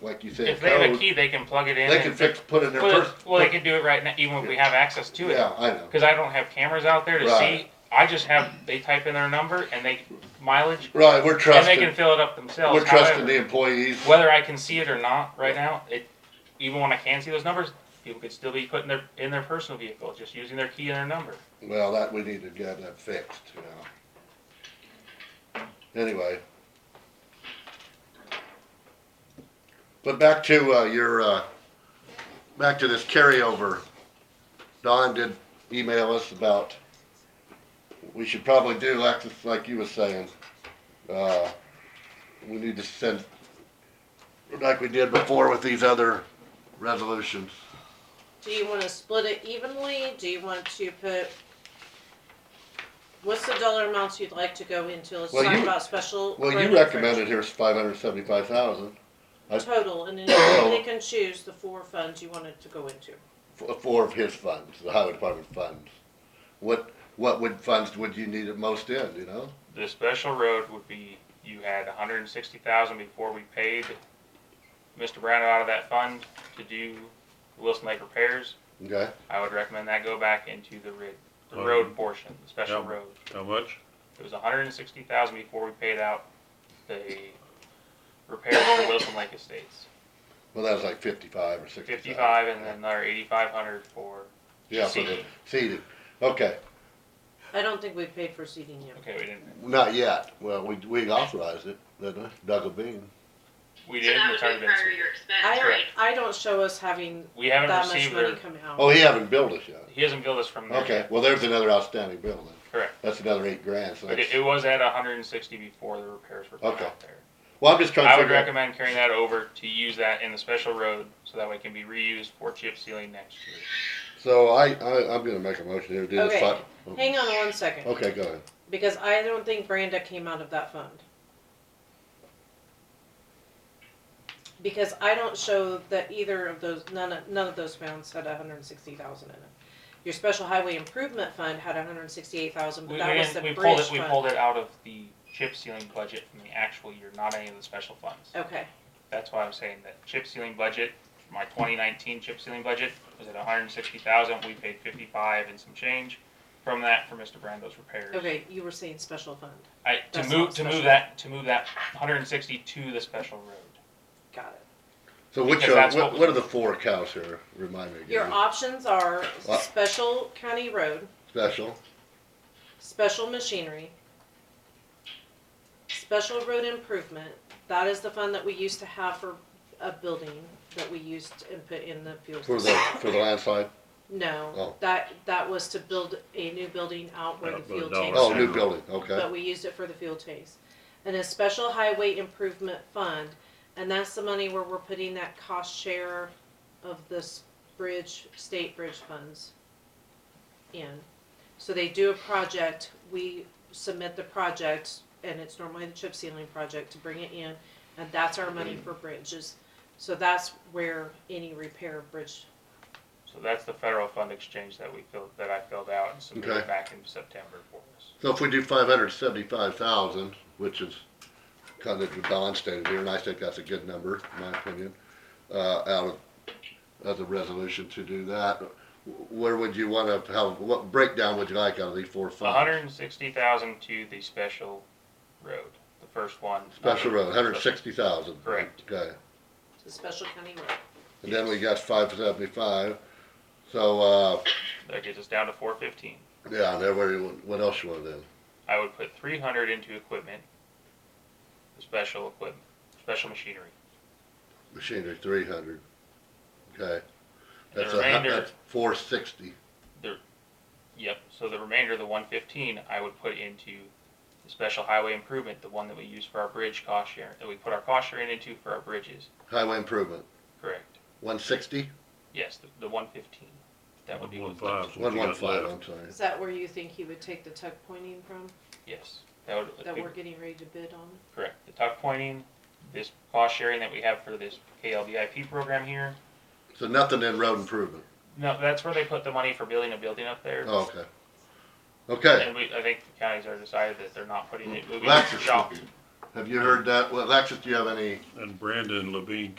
like you say, If they have a code, key, they can plug it in. they and can fix, put in their Well, first. well, they can do it right now, even if we have access to it. Yeah, I know. Because I don't have cameras out there to Right. see. I just have they type in their number and they mileage, Right, we're and they trusting, can fill it up themselves. we're trusting However, the employees. whether I can see it or not right now, it even when I can see those numbers, people could still be putting their in their personal vehicle, just using their key and their number. Well, that, we need to get that fixed, you know. Anyway. But back to, uh, your, uh, back to this carryover. Don did email us about, we should probably do, like, like you were saying, uh, we need to send, like we did before with these other resolutions. Do you wanna split it evenly? Do you want to put, what's the dollar amounts you'd like to go into? Let's Well, talk you- about special. Well, revenue you first. recommended here's five hundred seventy-five thousand. I- Total, and then they can choose the four funds you wanted to go into. f- four of his funds, the highway department funds. What, what would funds would you need it most in, you know? The special road would be you had 160,000 before we paid Mr. Brown out of that fund to do Wilson Lake repairs. Okay, I would recommend that go back into the rid, the Oh, road you- portion, the special yeah. road. How much? It was hundred and sixty thousand before we paid out the repairs for Wilson Lake Estates. well, that was like fifty-five or sixty. Fifty-five and then another eighty-five hundred for, Yeah, for the seating. seating, okay, I don't think we paid for seating yet. okay, we didn't, not yet, well, we, we authorized it, didn't we, Doug Levine? we So did, that and it's would already be been, prior seated. year expense, I, right? I don't show us having we haven't that much received money their, come Oh, out. he haven't billed us yet, he hasn't billed us from there okay, yet, well, there's another outstanding bill then, correct. that's another eight grand, so But that's, it, it was at hundred and sixty before the repairs were put Okay. out there. well, I'm just trying I to would figure out. recommend carrying that over to use that in the special road, so that way it can be reused for chip sealing next year. So I, I, I'm gonna make a motion here, do this, Okay. fi- Hang on one second, okay, go ahead, because I don't think Branda came out of that fund. Because I don't show that either of those, none of, none of those funds had hundred and sixty thousand in it. Your special highway improvement fund had hundred and sixty-eight thousand, We, but we that was didn't, the we bridge pulled it, we pulled fund. it out of the chip sealing budget from the actual year, not any of the special funds. Okay, That's why I'm saying that chip sealing budget, my twenty nineteen chip sealing budget was at hundred and sixty thousand, we paid fifty-five and some change from that for Mr. Brando's repairs. okay, you were saying special fund, I, to That's move, not to move special. that, to move that hundred and sixty to the special road. got it. so which Because are, that's what what, we- what are the four accounts here, remind me again? Your options are What? special county road, Special, Special machinery. Special road improvement, that is the fund that we used to have for a building that we used and put in the fuel. for the, system. for the landslide, No, Oh. that, that was to build a new building out where Yeah, the but fuel that tanks oh, was- are, new building, okay. but we used it for the fuel tanks. And a special highway improvement fund, and that's the money where we're putting that cost share of this bridge, state bridge funds in. So they do a project, we submit the project, and it's normally the chip sealing project to bring it in, and that's our money for bridges. So that's where any repair of bridge, So that's the federal fund exchange that we filled, that I filled out and Okay. submitted back in September for us. So if we do five hundred seventy-five thousand, which is kind of the Don stated here, and I think that's a good number, in my opinion, uh, out of, as a resolution to do that, wh- where would you wanna, how, what breakdown would you like out of these four funds? hundred and sixty thousand to the special road, the first one. Special road, hundred sixty thousand. Correct. Okay, the special county road. and then we got five seventy-five, so, uh, That gets us down to four fifteen. yeah, and then where you- what else you want then? I would put three hundred into equipment, the special equipment, special machinery. Machinery, three hundred, okay. The That's a hu- remainder- That's four sixty, Yep. So the remainder, the one fifteen, I would put into the special highway improvement, the one that we use for our bridge cost share, that we put our cost sharing into for our bridges. highway improvement, Correct. one sixty? Yes, the, the one fifteen. That would be One what's five. left. One What you one got five, left? I'm sorry. Is that where you think he would take the tuck pointing from, Yes, that would. that we're getting ready to bid on? Correct. The tuck pointing, this cost sharing that we have for this KLVIP program here. So nothing in road improvement. No, that's where they put the money for building a building up there. Oh, okay. Okay. And we, I think the counties are decided that they're not putting it, moving it to shop. Lexus, have you heard that? Well, Lexus, do you have any? And Brandon Levine